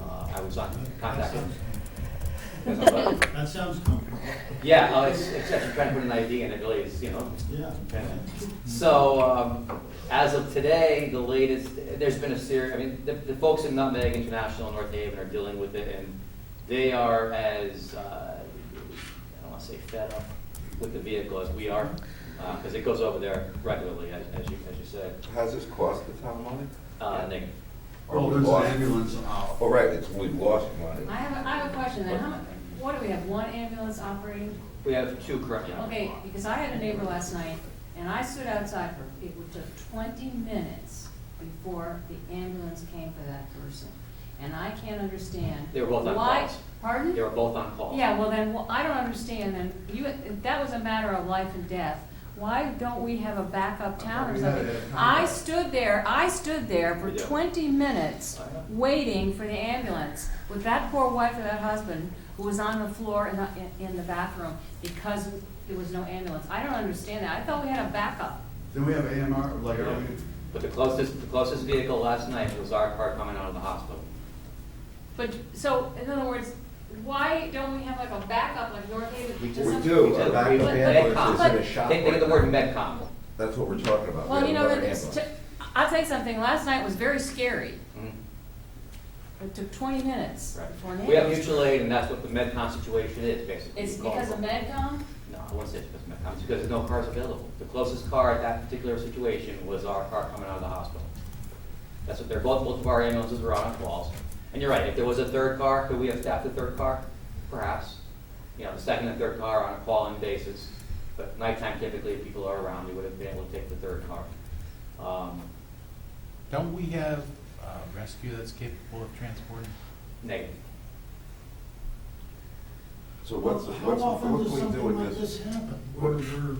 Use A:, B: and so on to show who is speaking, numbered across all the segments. A: Uh, was on contact. That's all right.
B: That sounds comfortable,
A: Yeah, oh, it's, it's just trying to put an ID in, it really is, you know,
B: yeah.
A: So, um, as of today, the latest, there's been a series, I mean, the, the folks in Nutmeg International in North Haven are dealing with it, and they are as, uh, I don't wanna say fed up with the vehicle as we are, uh, cause it goes over there regularly, as, as you, as you said,
C: Has this cost the town money?
A: uh, Nick.
C: Or
B: Well,
C: we
B: there's an
C: lost-
B: ambulance out.
C: Oh, right, it's, we lost money.
D: I have, a I have a question then, how, mu- what do we have, one ambulance operating?
A: We have two currently on.
D: Okay, because I had a neighbor last night, and I stood outside for, it took twenty minutes before the ambulance came for that person. And I can't understand.
A: They were both on
D: why-
A: calls.
D: Pardon?
A: They were both on call.
D: Yeah, well then, well, I don't understand, then, you, if that was a matter of life and death. Why don't we have a backup town or
B: We had
D: something?
B: it at
D: I
B: Concord.
D: stood there, I stood there for
A: We did.
D: twenty minutes
A: I know.
D: waiting for the ambulance with that poor wife and that husband who was on the floor in the, in- in the bathroom because there was no ambulance. I don't understand that. I thought we had a backup.
B: Then we have AMR, like, are we,
A: But the closest, the closest vehicle last night was our car coming out of the hospital.
D: But, so, in other words, why don't we have like a backup like North Haven?
C: We
D: to
C: do.
D: some-
C: We do.
A: We
C: Our
A: did.
C: backup
A: We-
C: ambulance
A: Medcom.
C: is in a shop
A: Think, think of the
C: right
A: word
C: now.
A: Medcom.
C: That's what we're talking about.
D: Well,
C: We
D: you
C: have
D: know,
C: another
D: it's,
C: ambulance.
D: I'll tell you something, last night was very scary.
A: Mhm.
D: It took twenty minutes before an
A: Right. We have
D: ambulance.
A: mutual aid, and that's what the MedCom situation is, basically.
D: It's
A: You call
D: because
A: it-
D: of MedCom?
A: No, I wouldn't say it's because of MedCom, it's because there's no cars available. The closest car at that particular situation was our car coming out of the hospital. That's what they're, both, both of our ambulances were on calls. And you're right, if there was a third car, could we have staffed the third car? Perhaps. You know, the second and third car on a calling basis, but nighttime typically, if people are around, we would have been able to take the third car. Um,
E: Don't we have uh rescue that's capable of transporting?
A: Negative.
C: So
B: well,
C: what's,
B: how
C: what's, what
B: often
C: can
B: does
C: we do
B: something like
C: with
B: this
C: this?
B: happen? Where we're,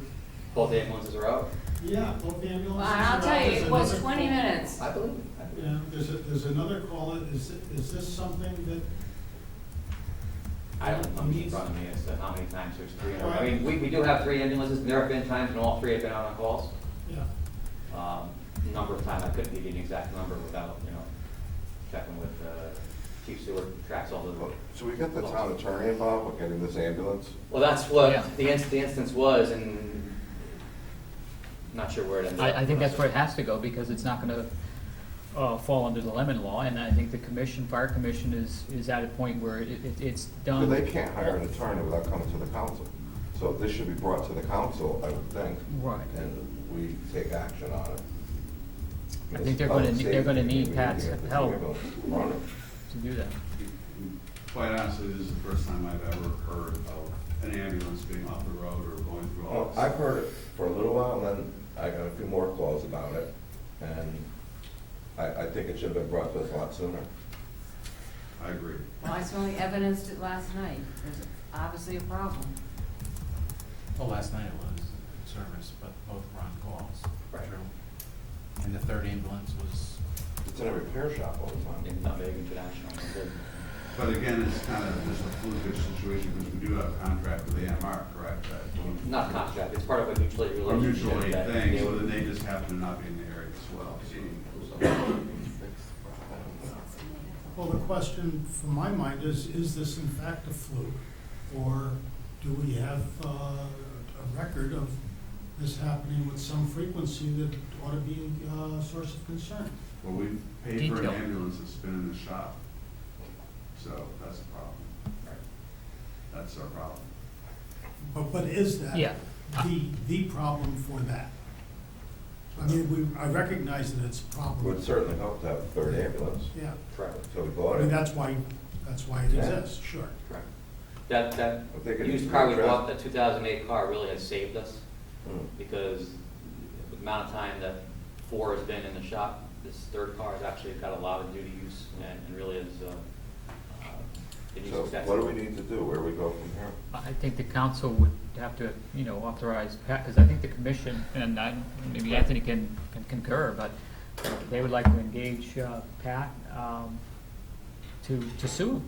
A: Both ambulances are out?
B: yeah, both ambulances are
D: Well,
B: out.
D: I'll tell you,
B: There's
D: it was
B: another
D: twenty
B: call.
D: minutes.
A: I believe it. I believe it.
B: Yeah, there's, a- there's another call, is, is this something
A: I don't know in front of me as to how many times there's three. in a row. I
B: Right.
A: mean, we, we do have three ambulances, and there have been times when all three have been out on calls.
B: that, yeah.
A: Um, Number of times, I couldn't give you an exact number without, you know, checking with uh, Chief Stewart, tracks all the.
C: So we got the town attorney involved with getting this ambulance?
A: Well, that's
F: Yeah.
A: what the inst- the instance was, and not sure where it ended up.
F: I, I think that's where it has to go, because it's not gonna, uh, fall under the lemon law, and I think the commission, fire commission is, is at a point where it, it, it's
C: But
F: done.
C: they can't hire an attorney without coming to the council. So this should be brought to the council, I would think.
F: Right.
C: And we take action on it.
F: I think they're gonna
C: It's
F: need-
C: public
F: they're gonna
C: safety.
F: need
C: We
F: Pat's
C: to get the
F: help.
C: ambulance running.
F: To do that.
G: Quite honestly, this is the first time I've ever heard of an ambulance being off the road or going through all
C: Well,
G: this.
C: Oh, I've heard it for a little while, and then I got a few more calls about it, and I, I think it should have been brought to us a lot sooner.
G: I agree.
D: Well, I certainly evidenced it last night. There's obviously a problem.
E: Well, last night it was in service, but both were on calls.
A: Right.
E: True. And the third ambulance was,
C: It's in a repair shop all the
A: In
C: time.
A: Nutmeg International.
G: But again, it's kind of just a flukish situation because we do have a contract with AMR, correct? That don't-
A: Not contract, it's part of a mutual aid
G: A
A: relationship.
G: mutual aid
A: that
G: thing,
A: they
G: so
A: would-
G: then they just happen to not be in the area as well. so-
B: Well, the question from my mind is, is this in fact a fluke? Or do we have uh, a record of this happening with some frequency that ought to be uh, a source of concern?
G: Well, we paid for an
F: Detail.
G: ambulance that's been in the shop, so that's a problem.
A: Right.
G: That's our problem.
B: But, but is that
F: Yeah.
B: the, the problem for that? I mean, we, I recognize that it's a
C: Would
B: problem.
C: certainly help to have a third ambulance,
B: Yeah,
A: Correct.
C: so we
B: I
C: bought
B: mean,
C: it.
B: that's why, that's why it
C: Yeah.
B: exists, sure.
A: Correct. That, that
C: I think it
A: used
C: needs
A: car
C: to
A: we
C: be
A: bought,
C: addressed.
A: that two thousand eight car really has saved us,
C: Mm.
A: because the amount of time that four has been in the shop, this third car has actually got a lot of duty use, and and really is, uh, uh, it is
C: So
A: excessive.
C: what do we need to do, where we go from here?
F: I I think the council would have to, you know, authorize, because I think the commission, and I, maybe Anthony can can concur, but they would like to engage uh, Pat um, to, to sue him.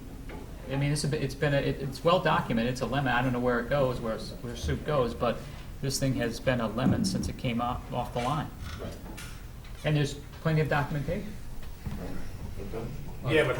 F: I mean, it's a, bit- it's been, a- it- it's well documented, it's a lemon, I don't know where it goes, where, s- where suit goes, but this thing has been a lemon since it came off, off the line.
A: Right.
F: And there's plenty of documentation.
C: Okay.
F: Yeah, but